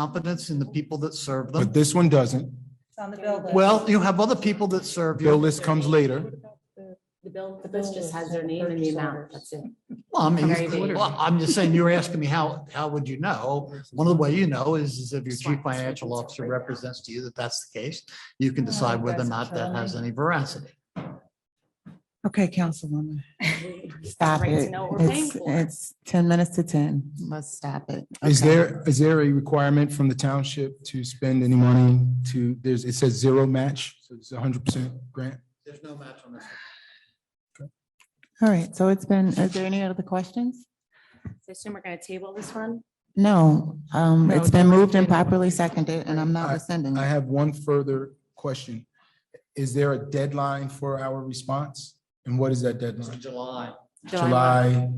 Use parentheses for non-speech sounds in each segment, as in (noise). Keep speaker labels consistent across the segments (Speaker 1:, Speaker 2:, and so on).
Speaker 1: confidence in the people that serve
Speaker 2: But
Speaker 1: them.
Speaker 2: this one doesn't.
Speaker 3: It's on the bill list.
Speaker 1: Well, you have other people that serve
Speaker 2: Bill
Speaker 1: you.
Speaker 2: list comes later.
Speaker 4: The bill, the bill just has their name and the amount, that's it.
Speaker 1: Well, I mean,
Speaker 4: Very big.
Speaker 1: well, I'm just saying, you were asking me how, how would you know? One of the way you know is, is if your chief financial officer represents to you that that's the case, you can decide whether or not that has any veracity.
Speaker 5: Okay,
Speaker 4: (laughs)
Speaker 5: Councilwoman, stop
Speaker 4: Right to
Speaker 5: it.
Speaker 4: know what we're paying
Speaker 5: It's,
Speaker 4: for.
Speaker 5: it's ten minutes to ten. Let's stop it.
Speaker 2: Is
Speaker 5: Okay.
Speaker 2: there, is there a requirement from the township to spend any money to, there's, it says zero match, so it's hundred percent grant?
Speaker 1: There's no match on this.
Speaker 5: All right, so it's been, is there any other questions?
Speaker 4: So I assume we're gonna table this one?
Speaker 5: No, um,
Speaker 4: No,
Speaker 5: it's been moved and properly seconded and I'm not
Speaker 2: I-
Speaker 5: rescinding.
Speaker 2: I
Speaker 5: it.
Speaker 2: have one further question. Is there a deadline for our response? And what is that deadline?
Speaker 1: July.
Speaker 2: July,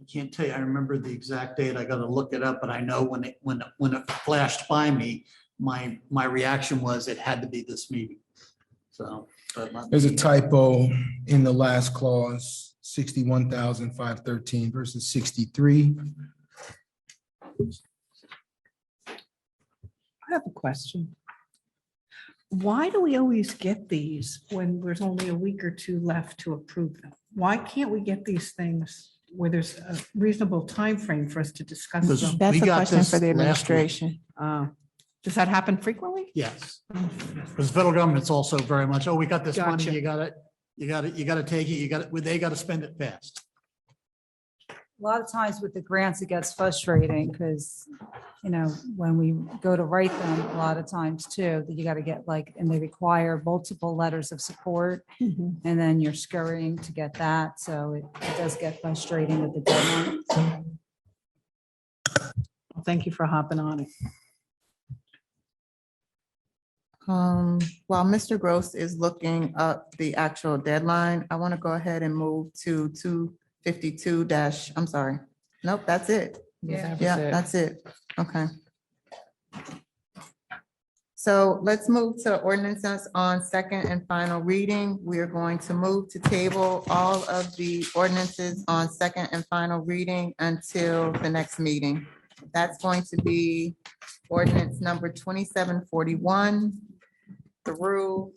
Speaker 1: I can't tell you, I remember the exact date, I gotta look it up, but I know when it, when, when it flashed by me, my, my reaction was it had to be this meeting. So. but let
Speaker 2: there's a
Speaker 1: me-
Speaker 2: typo in the last clause, sixty-one thousand five thirteen versus sixty-three.
Speaker 6: I have a question. Why do we always get these when there's only a week or two left to approve them? Why can't we get these things where there's a reasonable time frame for us to discuss
Speaker 1: Because-
Speaker 6: them?
Speaker 5: That's
Speaker 1: We
Speaker 5: a
Speaker 1: got
Speaker 5: question
Speaker 1: this
Speaker 5: for the
Speaker 1: last week.
Speaker 5: administration.
Speaker 6: Uh, Does that happen frequently?
Speaker 1: Yes. Because federal government's also very much, oh, we got this money,
Speaker 6: Gotcha.
Speaker 1: you got it, you got it, you gotta take it, you got it, well, they gotta spend it fast.
Speaker 3: A lot of times with the grants, it gets frustrating because, you know, when we go to write them, a lot of times too, that you got to get like, and they require multiple letters of support. And then you're scurrying to get that. So it it does get frustrating with the deadline.
Speaker 6: Well, Thank you for hopping on it.
Speaker 5: Um, while Mr. Gross is looking up the actual deadline, I want to go ahead and move to two fifty-two dash, I'm sorry. Nope, that's it. Yeah, that's it. Okay. So let's move to ordinances on second and final reading. We are going to move to table all of the ordinances on second and final reading until the next meeting. That's going to be ordinance number twenty-seven forty-one through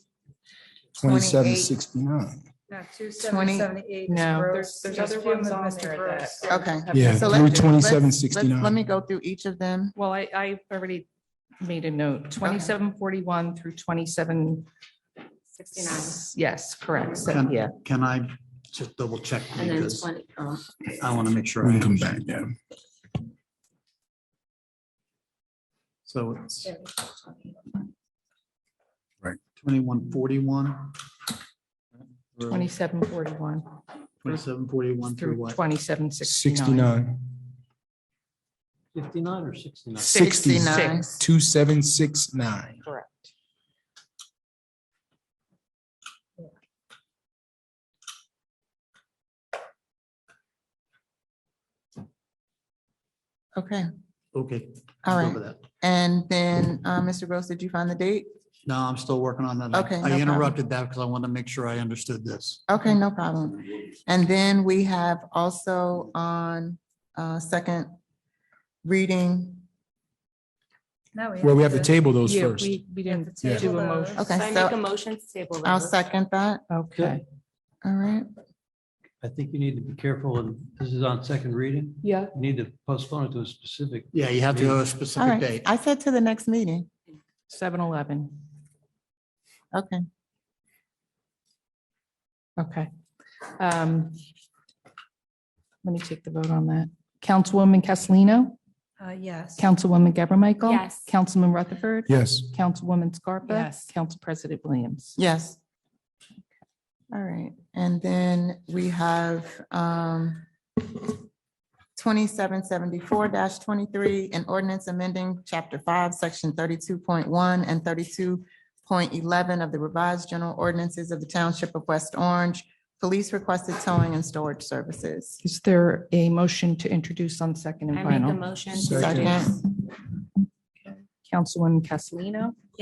Speaker 2: Twenty-seven
Speaker 5: 28.
Speaker 2: sixty-nine.
Speaker 3: No,
Speaker 5: Twenty-
Speaker 3: 2778
Speaker 7: No, there's, there's other ones on there that. are-
Speaker 5: Okay.
Speaker 7: have-
Speaker 2: Yeah,
Speaker 5: So
Speaker 2: through
Speaker 5: let's- let's-
Speaker 2: twenty-seven
Speaker 5: Let's- Let me
Speaker 2: sixty-nine.
Speaker 5: go through each of them.
Speaker 7: Well, I, I already made a note, twenty-seven forty-one through twenty-seven,
Speaker 4: Sixty-nine,
Speaker 7: yes, correct, so,
Speaker 1: Can-
Speaker 7: yeah.
Speaker 1: Can I just double check
Speaker 4: and then
Speaker 1: because
Speaker 4: twenty, oh,
Speaker 1: I want to make sure.
Speaker 2: We
Speaker 1: I
Speaker 2: can come
Speaker 1: understand.
Speaker 2: back, yeah.
Speaker 1: So it's
Speaker 4: yeah.
Speaker 1: twenty-one forty-one.
Speaker 7: Twenty-seven forty-one
Speaker 1: Twenty-seven forty-one through
Speaker 7: through
Speaker 1: what?
Speaker 7: twenty-seven sixty-nine.
Speaker 2: Sixty-nine,
Speaker 8: Fifty-nine or sixty-nine?
Speaker 2: sixty-nine,
Speaker 5: 69.
Speaker 2: two-seven, six-nine.
Speaker 7: Correct.
Speaker 5: Okay,
Speaker 1: Okay.
Speaker 5: all
Speaker 1: let's go
Speaker 5: right.
Speaker 1: with that.
Speaker 5: And then, uh, Mr. Gross, did you find the date?
Speaker 1: No, I'm still working on that. I-
Speaker 5: Okay,
Speaker 1: I
Speaker 5: no problem.
Speaker 1: interrupted that because I want to make sure I understood this.
Speaker 5: Okay, no problem. And then we have also on uh, second reading.
Speaker 3: No,
Speaker 2: Well, we have to
Speaker 3: to-
Speaker 2: table those
Speaker 7: Yeah,
Speaker 2: first.
Speaker 7: we, we didn't
Speaker 3: Yeah.
Speaker 7: do a motion.
Speaker 5: Okay,
Speaker 4: So I
Speaker 5: so-
Speaker 4: make a motion to table.
Speaker 5: I'll
Speaker 4: those.
Speaker 5: second that.
Speaker 7: Okay,
Speaker 5: All right.
Speaker 8: I think you need to be careful, and this is on second reading.
Speaker 7: yeah.
Speaker 8: You need to postpone it to a specific.
Speaker 1: Yeah, you have to go a
Speaker 5: All
Speaker 1: specific
Speaker 5: right.
Speaker 1: date.
Speaker 5: I said to the next meeting.
Speaker 7: Seven eleven,
Speaker 5: Okay.
Speaker 7: okay. Um, Let me take the vote on that. Councilwoman Castellino,
Speaker 3: Uh, Yes.
Speaker 7: Councilwoman Gabor Michael.
Speaker 4: Yes.
Speaker 7: Councilman Rutherford.
Speaker 2: Yes.
Speaker 7: Councilwoman Scarpa.
Speaker 6: Yes.
Speaker 7: Council President Williams.
Speaker 5: Yes. All right, and then we have um twenty-seven seventy-four twenty-three, an ordinance amending chapter five, section thirty-two point one and thirty-two point eleven of the revised general ordinances of the township of West Orange. Police requested towing and storage services.
Speaker 7: Is there a motion to introduce on second and
Speaker 4: I make a
Speaker 7: final?
Speaker 4: motion. to
Speaker 2: Second.
Speaker 4: introduce.
Speaker 7: Councilwoman Castellino?